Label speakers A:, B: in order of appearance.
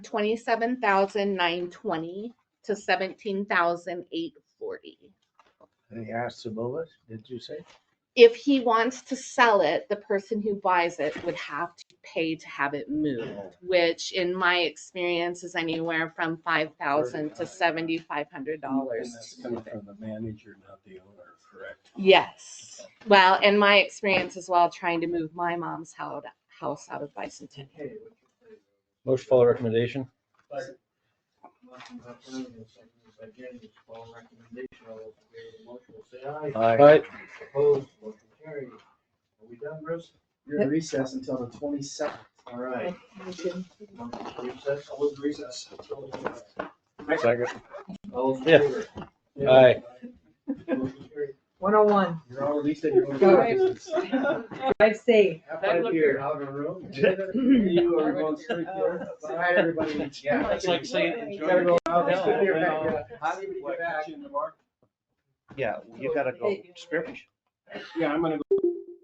A: twenty-seven thousand nine twenty to seventeen thousand eight forty.
B: And he asked to move it, did you say?
A: If he wants to sell it, the person who buys it would have to pay to have it moved, which in my experience is anywhere from five thousand to seventy-five
C: Oh,
A: hundred
B: And
A: dollars
B: that's coming from the manager, not the owner, correct?
A: Yes. Well, and my experience as well, trying to move my mom's hou- house out of Bicentennial.
D: Motion to follow recommendation.
C: Again, it's all recommendation, all those in favor of the motion will say aye.
D: Aye.
C: Opposed, motion carried. Are we done, Bruce?
E: You're in recess until the twenty-second.
C: All right. Recess, I was recess.
D: Second.
C: All in
D: Yeah.
C: favor?
D: Aye.
C: Motion carried.
F: One oh one,
C: You're all released at your own
F: Go.
C: business.
F: drive safe.
C: Have fun if you're out of the room. You are going straight there. Bye, everybody.
E: Yeah.
D: It's like saying
C: You gotta go out.
E: No,
C: Sit there,
E: no.
C: back up. How do you get back?
D: Yeah, you gotta go spearfish.
B: Yeah, I'm gonna go